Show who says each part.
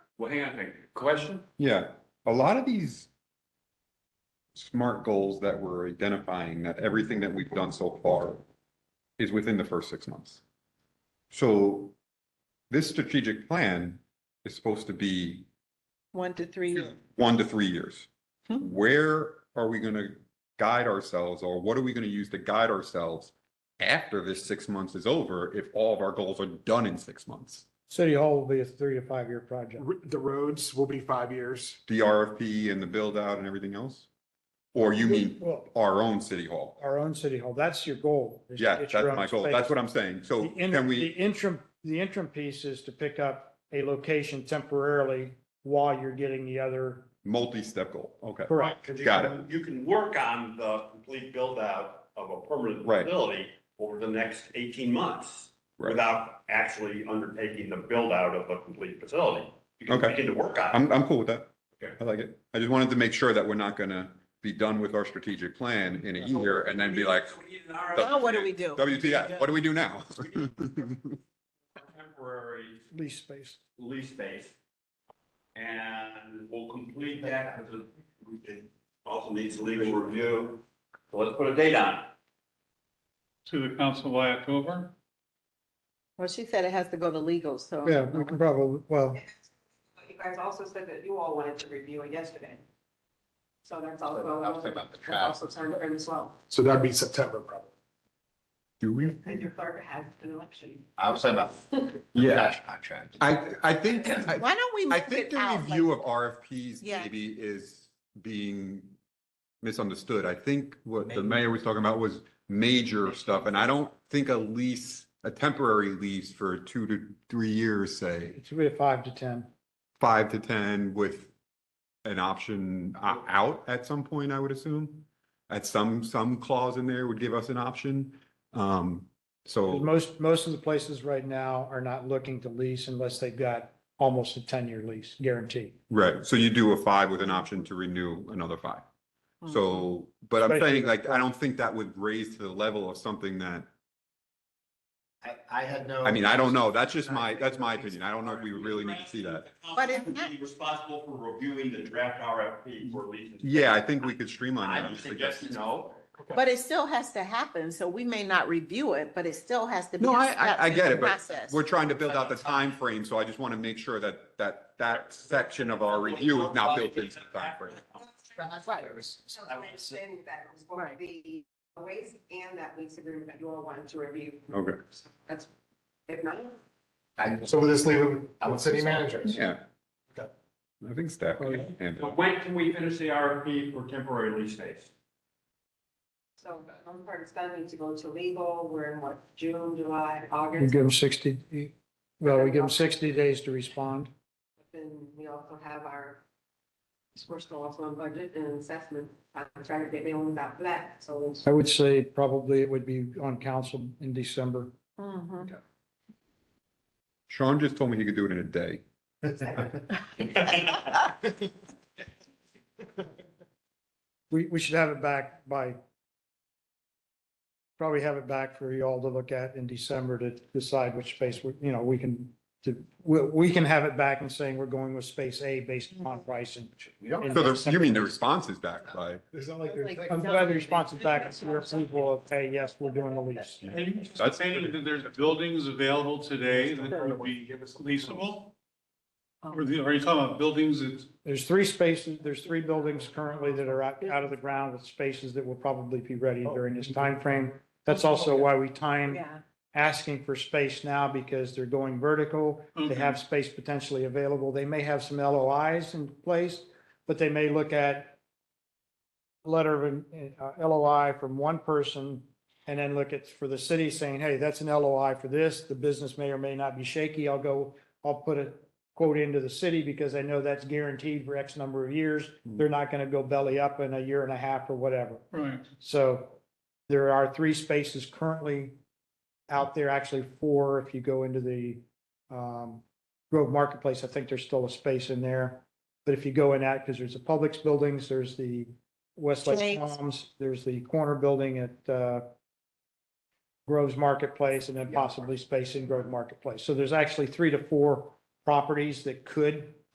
Speaker 1: Well, hang on, hang on. question?
Speaker 2: Yeah, a lot of these smart goals that we're identifying, that everything that we've done so far is within the first six months. So this strategic plan is supposed to be
Speaker 3: One to three years.
Speaker 2: one to three years.
Speaker 3: Hmm.
Speaker 2: Where are we going to guide ourselves or what are we going to use to guide ourselves after this six months is over if all of our goals are done in six months?
Speaker 4: City Hall will be a three to five year project.
Speaker 5: R- The roads will be five years.
Speaker 2: The RFP and the build out and everything else? Or you mean
Speaker 4: Well,
Speaker 2: our own city hall?
Speaker 4: our own City Hall, that's your goal. is to
Speaker 2: Yeah,
Speaker 4: get
Speaker 2: that's
Speaker 4: your own
Speaker 2: my goal.
Speaker 4: space.
Speaker 2: That's what I'm saying. So
Speaker 4: The in-
Speaker 2: can
Speaker 4: The
Speaker 2: we,
Speaker 4: interim, the interim piece is to pick up a location temporarily while you're getting the other,
Speaker 2: multi-step goal, okay.
Speaker 4: correct,
Speaker 1: Because you
Speaker 2: Got
Speaker 1: can- You can work on the complete build out of a permanent
Speaker 2: Right.
Speaker 1: facility over the next eighteen months
Speaker 2: Right.
Speaker 1: without actually undertaking the build out of a complete facility. You can
Speaker 2: Okay.
Speaker 1: begin to work on it.
Speaker 2: I'm, I'm cool with that.
Speaker 1: Okay.
Speaker 2: I like it. I just wanted to make sure that we're not gonna be done with our strategic plan in a year and then be like,
Speaker 1: We need an RFP
Speaker 3: Now what do we do?
Speaker 2: WTF, what do we do now?
Speaker 1: for Temporary
Speaker 4: lease space.
Speaker 1: lease space. And we'll complete that because it- we can also needs legal review. So let's put a date on it.
Speaker 6: to the council by October.
Speaker 3: Well, she said it has to go to legal, so.
Speaker 4: Yeah, we can probably, well,
Speaker 7: But you guys also said that you all wanted to review it yesterday. So that's also. that's Also time frame as well.
Speaker 5: So that'd be September probably.
Speaker 2: Do we?
Speaker 7: And your clerk has an election.
Speaker 8: I was talking about
Speaker 2: Yeah,
Speaker 8: cash contract.
Speaker 2: I, I think, I
Speaker 3: Why don't we
Speaker 2: I
Speaker 3: move
Speaker 2: think
Speaker 3: it
Speaker 2: the
Speaker 3: out? like-
Speaker 2: review of RFPs
Speaker 3: Yeah.
Speaker 2: maybe is being misunderstood. I think what the mayor was talking about was major stuff, and I don't think a lease, a temporary lease for two to three years, say,
Speaker 4: it's be a five to ten.
Speaker 2: five to ten with an option o- out at some point, I would assume. At some, some clause in there would give us an option. Um, so,
Speaker 4: Most, most of the places right now are not looking to lease unless they've got almost a ten year lease guaranteed.
Speaker 2: right, so you do a five with an option to renew another five.
Speaker 3: Hmm.
Speaker 2: So, but I'm
Speaker 4: Especially
Speaker 2: saying
Speaker 4: the-
Speaker 2: like, I don't think that would raise to the level of something that,
Speaker 8: I, I had no.
Speaker 2: I mean, Oh, I don't know. That's just my, that's my opinion. I don't know if we would really need to see that.
Speaker 3: But it's
Speaker 1: Council would Be responsible for reviewing the draft RFP for lease. and-
Speaker 2: Yeah, I think we could streamline that.
Speaker 1: I would suggest no.
Speaker 3: But it still has to happen, so we may not review it, but it still has to be.
Speaker 2: No,
Speaker 3: a
Speaker 2: I- I-
Speaker 3: step
Speaker 2: I
Speaker 3: in
Speaker 2: get
Speaker 3: the
Speaker 2: it, but
Speaker 3: process.
Speaker 2: We're trying to build out the time frame, so I just want to make sure that, that, that section of our review is not built into the timeframe.
Speaker 3: Right.
Speaker 7: So I'm understanding that it was going to be a waste and that lease agreement that you all wanted to review.
Speaker 2: Okay.
Speaker 7: So That's, if not,
Speaker 8: I-
Speaker 5: So we'll just leave it with city managers.
Speaker 2: Yeah.
Speaker 5: Okay.
Speaker 2: I think staff
Speaker 4: Oh, yeah.
Speaker 2: can handle
Speaker 1: But when can we finish the RFP for temporary lease space?
Speaker 7: so I'm part of need to go to legal. We're in what, June, July,
Speaker 4: We
Speaker 7: August?
Speaker 4: give them sixty, well, we give them sixty days to respond.
Speaker 7: Then we also have our, we're still also on budget and assessment. I'm trying to get nailed out for that. So
Speaker 4: I would say probably it would be on council in December.
Speaker 3: Mhm.
Speaker 7: Mm-hmm.
Speaker 2: it. Sean just told me he could do it in a day.
Speaker 4: We, we should have it back by, probably have it back for you all to look at in December to decide which space, we you know, we can, to, we, we can have it back and saying we're going with space A based upon pricing.
Speaker 5: We don't-
Speaker 2: So the, you mean the response is back by,
Speaker 5: It's not like there's-
Speaker 4: I'm glad the response is back, it's your approval of, hey, yes, we're doing the lease.
Speaker 6: And
Speaker 2: That's-
Speaker 6: saying that there's buildings available today that would be leasable? Or the- are you talking about buildings that,
Speaker 4: There's three spaces, there's three buildings currently that are out, out of the ground with spaces that will probably be ready during this time frame. That's also why we time
Speaker 3: Yeah.
Speaker 4: asking for space now because they're going vertical. They
Speaker 6: Okay.
Speaker 4: have space potentially available. They may have some LOIs in place, but they may look at letter of an- uh, LOI from one person and then look at for the city saying, hey, that's an LOI for this. The business may or may not be shaky. I'll go, I'll put a quote into the city because I know that's guaranteed for X number of years. They're not going to go belly up in a year and a half or whatever.
Speaker 6: right,
Speaker 4: So there are three spaces currently out there, actually four, if you go into the um, Grove Marketplace, I think there's still a space in there. But if you go in that, because there's the Publix buildings, there's the Westlake
Speaker 3: Jake's.
Speaker 4: Palms, there's the corner building at uh, Grove's Marketplace, and then possibly space in Grove Marketplace. So there's actually three to four properties that could